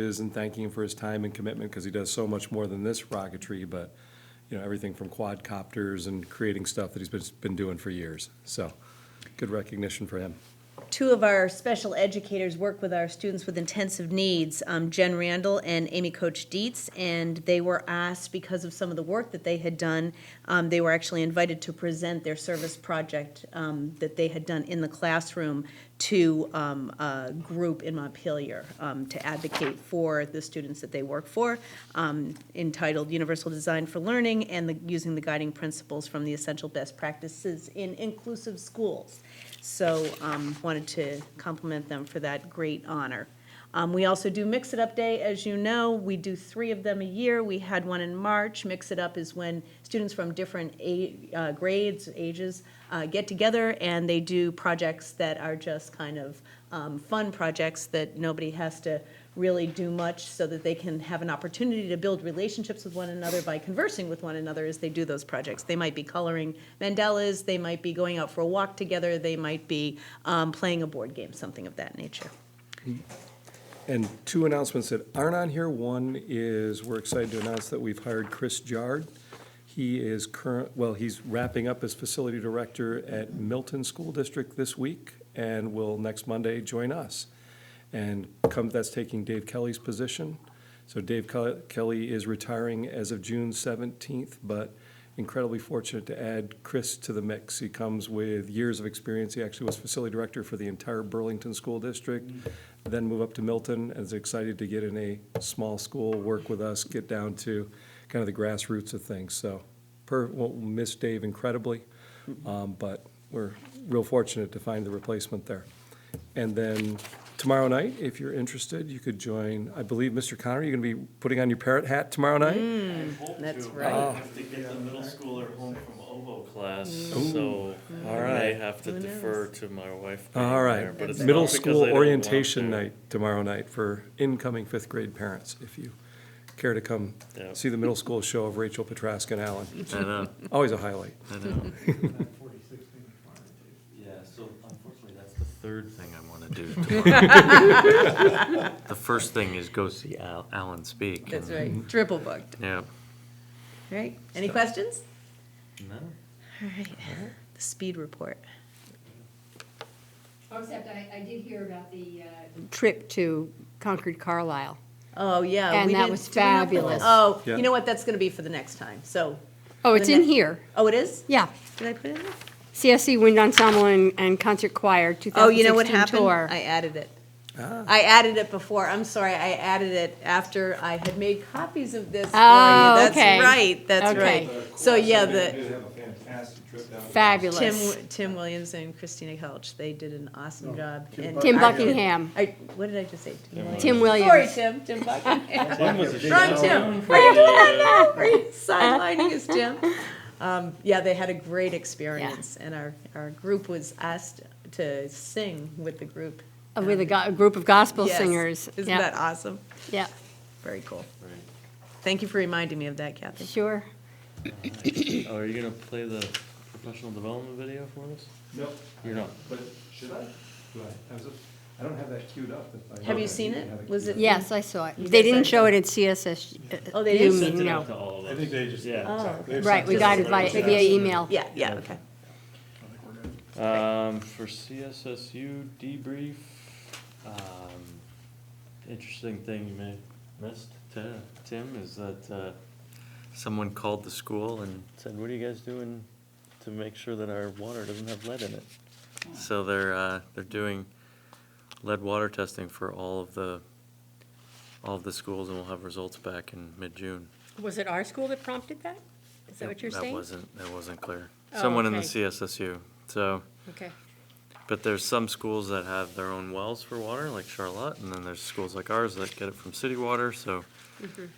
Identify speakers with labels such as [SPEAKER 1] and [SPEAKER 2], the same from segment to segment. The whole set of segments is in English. [SPEAKER 1] is and thanking him for his time and commitment because he does so much more than this rocketry, but, you know, everything from quadcopters and creating stuff that he's been, been doing for years. So good recognition for him.
[SPEAKER 2] Two of our special educators work with our students with intensive needs, um, Jen Randall and Amy Coach Dietz, and they were asked, because of some of the work that they had done, um, they were actually invited to present their service project um, that they had done in the classroom to um, a group in Montpelier um, to advocate for the students that they work for, um, entitled Universal Design for Learning and the, using the guiding principles from the essential best practices in inclusive schools. So um, wanted to compliment them for that great honor. Um, We also do Mix It Up Day, as you know. We do three of them a year. We had one in March. Mix It Up is when students from different a- uh, grades, ages, uh, get together and they do projects that are just kind of um, fun projects that nobody has to really do much so that they can have an opportunity to build relationships with one another by conversing with one another as they do those projects. They might be coloring mandalas, they might be going out for a walk together, they might be um, playing a board game, something of that nature.
[SPEAKER 1] And two announcements that aren't on here. One is we're excited to announce that we've hired Chris Jard. He is current, well, he's wrapping up as facility director at Milton School District this week and will next Monday join us. And come, that's taking Dave Kelly's position. So Dave Ke- Kelly is retiring as of June seventeenth, but incredibly fortunate to add Chris to the mix. He comes with years of experience. He actually was facility director for the entire Burlington School District, then move up to Milton, and is excited to get in a small school, work with us, get down to kind of the grassroots of things. So, per, won't miss Dave incredibly, um, but we're real fortunate to find the replacement there. And then tomorrow night, if you're interested, you could join, I believe, Mr. Connor, you're gonna be putting on your parrot hat tomorrow
[SPEAKER 3] Mm.
[SPEAKER 1] night?
[SPEAKER 3] hope
[SPEAKER 2] That's
[SPEAKER 3] to.
[SPEAKER 2] right.
[SPEAKER 1] Oh.
[SPEAKER 3] I have to get the middle schooler home from obo class, so
[SPEAKER 1] Mm-hmm. all
[SPEAKER 3] I may
[SPEAKER 1] right.
[SPEAKER 3] have to
[SPEAKER 2] Who knows?
[SPEAKER 3] defer to my wife. being
[SPEAKER 1] All
[SPEAKER 3] there,
[SPEAKER 1] right,
[SPEAKER 3] but it's
[SPEAKER 1] middle
[SPEAKER 3] not because
[SPEAKER 1] school
[SPEAKER 3] I don't want
[SPEAKER 1] orientation
[SPEAKER 3] to.
[SPEAKER 1] night tomorrow night for incoming fifth grade parents, if you care to come
[SPEAKER 3] Yeah.
[SPEAKER 1] see the middle school show of Rachel Petraska and Allen.
[SPEAKER 3] I know,
[SPEAKER 1] Always a highlight.
[SPEAKER 3] I know.
[SPEAKER 4] Forty-six being required.
[SPEAKER 3] Yeah, so unfortunately, that's the third thing I want to do tomorrow. The first thing is go see Al, Alan speak.
[SPEAKER 2] That's
[SPEAKER 3] and-
[SPEAKER 2] right, triple booked.
[SPEAKER 3] Yeah.
[SPEAKER 2] All right, any questions?
[SPEAKER 3] No?
[SPEAKER 2] All right, the speed report.
[SPEAKER 5] Oh, Except I, I did hear about the, uh,
[SPEAKER 6] trip to Concord Carlisle.
[SPEAKER 2] Oh, yeah.
[SPEAKER 6] And
[SPEAKER 2] we
[SPEAKER 6] that
[SPEAKER 2] didn't-
[SPEAKER 6] was
[SPEAKER 2] did we not put-
[SPEAKER 6] fabulous.
[SPEAKER 2] Oh,
[SPEAKER 1] Yeah.
[SPEAKER 2] you know what, that's gonna be for the next time, so,
[SPEAKER 6] Oh, it's
[SPEAKER 2] The
[SPEAKER 6] in
[SPEAKER 2] ne-
[SPEAKER 6] here.
[SPEAKER 2] oh, it is?
[SPEAKER 6] Yeah.
[SPEAKER 2] Did I put it in there?
[SPEAKER 6] CSC Wind Ensemble and, and Concert Choir 2016
[SPEAKER 2] Oh, you know what happened?
[SPEAKER 6] tour.
[SPEAKER 2] I added it.
[SPEAKER 1] Ah.
[SPEAKER 2] I added it before, I'm sorry, I added it after I had made copies of this for you.
[SPEAKER 6] Oh,
[SPEAKER 2] That's
[SPEAKER 6] okay.
[SPEAKER 2] right, that's
[SPEAKER 6] Okay.
[SPEAKER 2] right. So, yeah, the,
[SPEAKER 4] Did have a fantastic trip down. to-
[SPEAKER 6] Fabulous.
[SPEAKER 2] Tim, Tim Williams and Christina Helch, they did an awesome job. and-
[SPEAKER 6] Tim
[SPEAKER 2] I-
[SPEAKER 6] Buckingham.
[SPEAKER 2] I, what did I just say? Tim Williams?
[SPEAKER 6] Tim Williams.
[SPEAKER 2] Sorry, Tim, Tim Buckingham.
[SPEAKER 3] Tim was a
[SPEAKER 2] Wrong Tim. Are you Are you sidelining us, Tim? Um, yeah, they had a great experience, and our, our group was asked to sing with the group.
[SPEAKER 6] Uh, With a, go- a group of gospel
[SPEAKER 2] Yes.
[SPEAKER 6] singers.
[SPEAKER 2] Isn't
[SPEAKER 6] yeah.
[SPEAKER 2] that awesome?
[SPEAKER 6] yeah,
[SPEAKER 2] Very cool. Thank you for reminding me of that, Kathy.
[SPEAKER 6] sure.
[SPEAKER 3] Oh, are you gonna play the professional development video for us?
[SPEAKER 1] No,
[SPEAKER 3] You're not.
[SPEAKER 1] but should I? Do I, I was, I don't have that queued up.
[SPEAKER 2] Have you seen it? Was it?
[SPEAKER 6] Yes, I saw it.
[SPEAKER 2] You
[SPEAKER 6] They
[SPEAKER 2] guys
[SPEAKER 6] didn't
[SPEAKER 2] said-
[SPEAKER 6] show it at CSS. uh,
[SPEAKER 2] Oh, they didn't?
[SPEAKER 6] you
[SPEAKER 3] Sent
[SPEAKER 6] mean,
[SPEAKER 3] it out
[SPEAKER 6] no.
[SPEAKER 3] to all of us.
[SPEAKER 4] I think they just.
[SPEAKER 3] Yeah.
[SPEAKER 2] Oh.
[SPEAKER 4] They've
[SPEAKER 6] Oh, Right,
[SPEAKER 4] sent
[SPEAKER 6] we
[SPEAKER 4] it
[SPEAKER 6] got
[SPEAKER 4] to
[SPEAKER 6] invited
[SPEAKER 4] everybody.
[SPEAKER 6] via email.
[SPEAKER 2] Yeah, yeah, okay.
[SPEAKER 4] I think we're good.
[SPEAKER 3] Um, for CSSU debrief, um, interesting thing you may have missed, Ti- Tim, is that, uh, someone called the school and said, what are you guys doing to make sure that our water doesn't have lead in it? So they're, uh, they're doing lead water testing for all of the, all of the schools and we'll have results back in mid-June.
[SPEAKER 7] Was it our school that prompted that? Is that what you're saying?
[SPEAKER 3] That wasn't, that wasn't clear.
[SPEAKER 7] Oh,
[SPEAKER 3] Someone in the
[SPEAKER 7] okay.
[SPEAKER 3] CSSU, so.
[SPEAKER 7] Okay.
[SPEAKER 3] But there's some schools that have their own wells for water, like Charlotte, and then there's schools like ours that get it from city water, so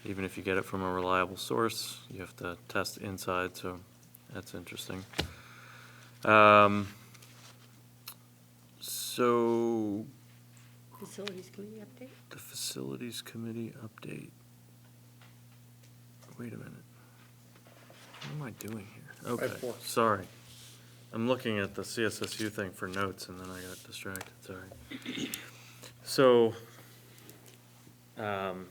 [SPEAKER 3] even if you get it from a reliable source, you have to test inside, so that's interesting. Um, So,
[SPEAKER 7] Facilities committee update?
[SPEAKER 3] the facilities committee update. Wait a minute. What am I doing here? Okay, sorry. I'm looking at the CSSU thing for notes and then I got distracted, sorry. So, um,